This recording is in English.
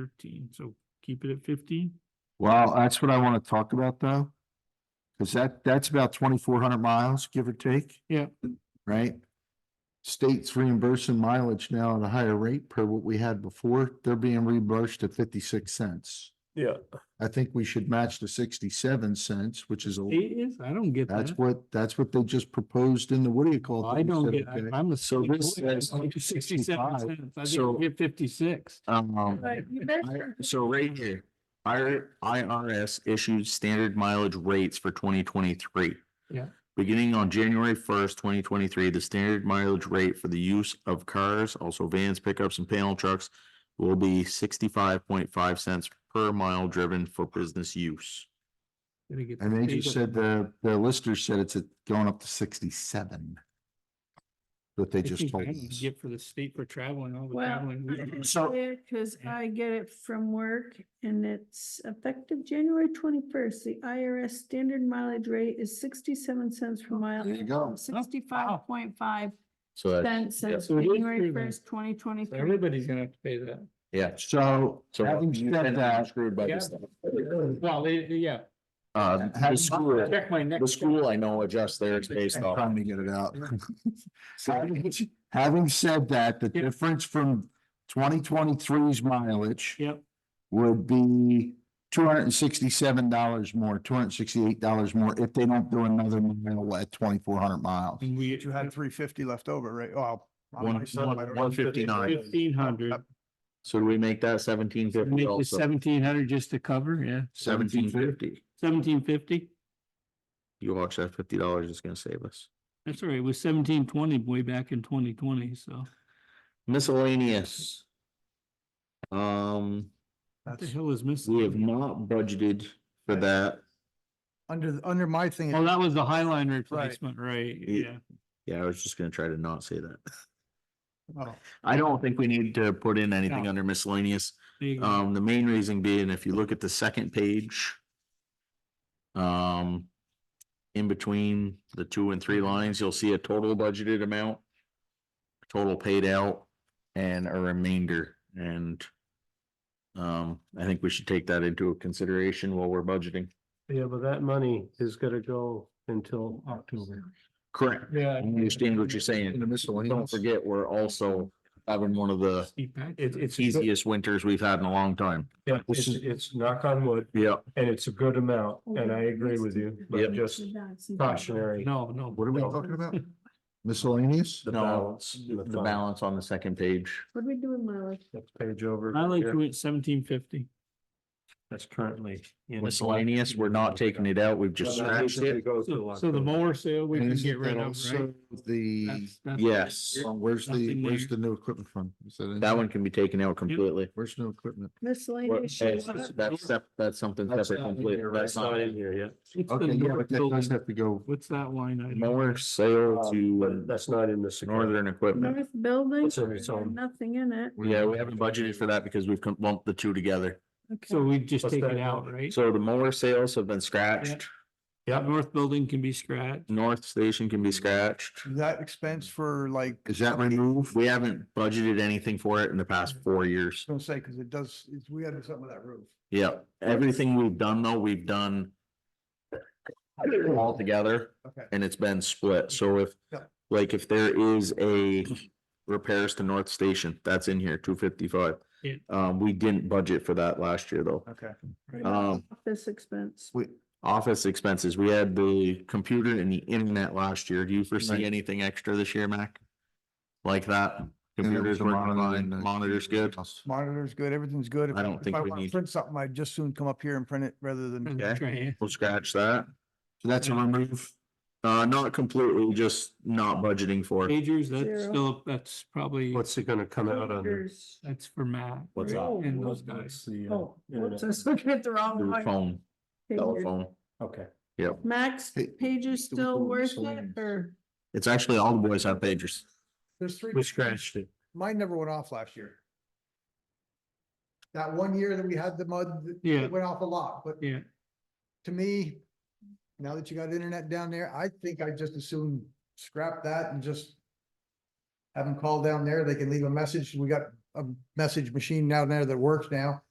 thirteen, so keep it at fifteen. Well, that's what I wanna talk about though. Cause that, that's about twenty-four hundred miles, give or take. Yeah. Right? States reimbursing mileage now at a higher rate per what we had before. They're being reimbursed at fifty-six cents. Yeah, I think we should match the sixty-seven cents, which is, a It is, I don't get that's that. what, that's what they just proposed in the, what do you call it? I don't get, I- Okay. I'm a. So this says Sixty-seven 65, cents, I so- think we get fifty-six. Um, Right, you better- I- So right here, IR IRS issued standard mileage rates for twenty twenty-three. Yeah. Beginning on January first, twenty twenty-three, the standard mileage rate for the use of cars, also vans, pickups and panel trucks will be sixty-five point five cents per mile driven for business use. Gonna get and they paid just up. said the, the lister said it's at- going up to sixty-seven. That they I just think told I can us. Get for the state for traveling, all the Well, traveling. we um, do. So- Because I get it from work and it's effective January twenty-first. The IRS standard mileage rate is sixty-seven cents per mile. Oh, There you go. Sixty-five point five So uh, that, cents yeah. since So it is January true then. first, twenty So twenty-three. Everybody's gonna have to pay that. yeah. So So having you said and I are that, Screwed by this. Yeah. stuff. Well, they, they- yeah. Uh, the Having- school, Check my next. the school I know adjusts theirs based I'm off. trying to get it out. Having- Having said that, the Yeah. difference from 2023's mileage Yep, would be two hundred and sixty-seven dollars more, two hundred and sixty-eight dollars more if they don't do another mile at twenty-four hundred miles. and we. You had three fifty left over, right? Oh. on One- my side, one- I don't- 159. Fifteen hundred, So do we make that seventeen fifty make it also? seventeen hundred just to cover, yeah, Seventeen fifty. seventeen fifty? You watch that fifty dollars is gonna save us. That's all right, it was seventeen twenty way back in twenty twenty, so. Miscellaneous. Um, What the That's hell is missing? we have not budgeted for that. under, the- under my thing. Oh, that was the Highline replacement, right, yeah. Yeah, I was just gonna try to not say that. oh, I don't think we need to put in anything No. under miscellaneous. There you go. Um, the main reason being, if you look at the second page. Um, in between the two and three lines, you'll see a total budgeted amount. Total paid out and a remainder and. Um, I think we should take that into consideration while we're budgeting. Yeah, but that money is gonna go until October. Correct. Yeah. I understand what you're saying. In the miscellaneous. Don't forget, we're also having one of the Steve Paxton. It, it's. a good- easiest winters we've had in a long time. yeah, It's, it's knock on wood, Yeah. and it's a good amount, and I agree with you, but just cautionary. No, no. What are we No. talking about? Miscellaneous? The No, balance. The balance on the second page. What are we doing, Myla? Next page over. I like Yeah, you at seventeen fifty. That's currently. in- Miscellaneous, we're not taking it out. We've just Well, that needs scratched it. to go till So so the October. mower sale, we And can isn't get rid that of, right? also The, That's- that's- Yes. um, where's the, Nothing where's there. the new equipment fund? Is in That there? one can be taken out completely. Where's new equipment? What- Miscellaneous. That's, that's sep- that's something That's separate not in completely. here, That's That's not not in here yet. What's the Okay, yeah, north but that building? does have to go. What's that line item? mower sale Um, But to uh, That's not in this. account. northern equipment. North building, It's in its own- nothing in it. Yeah, we haven't budgeted for that because we've com- lumped the two together. So we just What's take that it in? out, right? So the mower sales have been scratched. That north building can be scratched. North station can be scratched. Is that expense for like, I Mm. Is that Mm. removed? We haven't budgeted anything for it in the past four years. was gonna say, because it does, it's, we had something with that roof. Yeah, everything we've done though, we've done all together Okay. and it's been split. So if, Yeah. like, if there is a repairs to North Station, that's in here, two fifty-five. Yeah. Um, we didn't budget for that last year though. Okay. Um, Office expense. We, office expenses, we had the computer and the internet last year. Do you Right. foresee anything extra this year, Mac? Like that? And there was Computers a working monitor fine, and a- monitors good? Monitor's good, everything's good. If- I don't if think we wanna need- Print something, I'd just soon come up here and print it rather than, Try and- We'll scratch that. So that's a remove. Uh, not completely, just not budgeting for. it. Pagers, that's Zero. still, that's probably, What's it gonna come out on? the- Computers. that's for Matt. What's right? up? And those guys. Oh, whoops, I uh, Internet. was looking at the wrong Your one. phone, telephone. Okay. Max, Hey, pager's do we still call it worth it miscellaneous? or? It's actually all the boys have pagers. there's three. We scratched it. Mine never went off last year. That one year that we had the mud, it Yeah, went off a lot, but yeah. to me, now that you got internet down there, I think I just assume scrap that and just have them call down there. They can leave a message. We got a message machine down there that works now.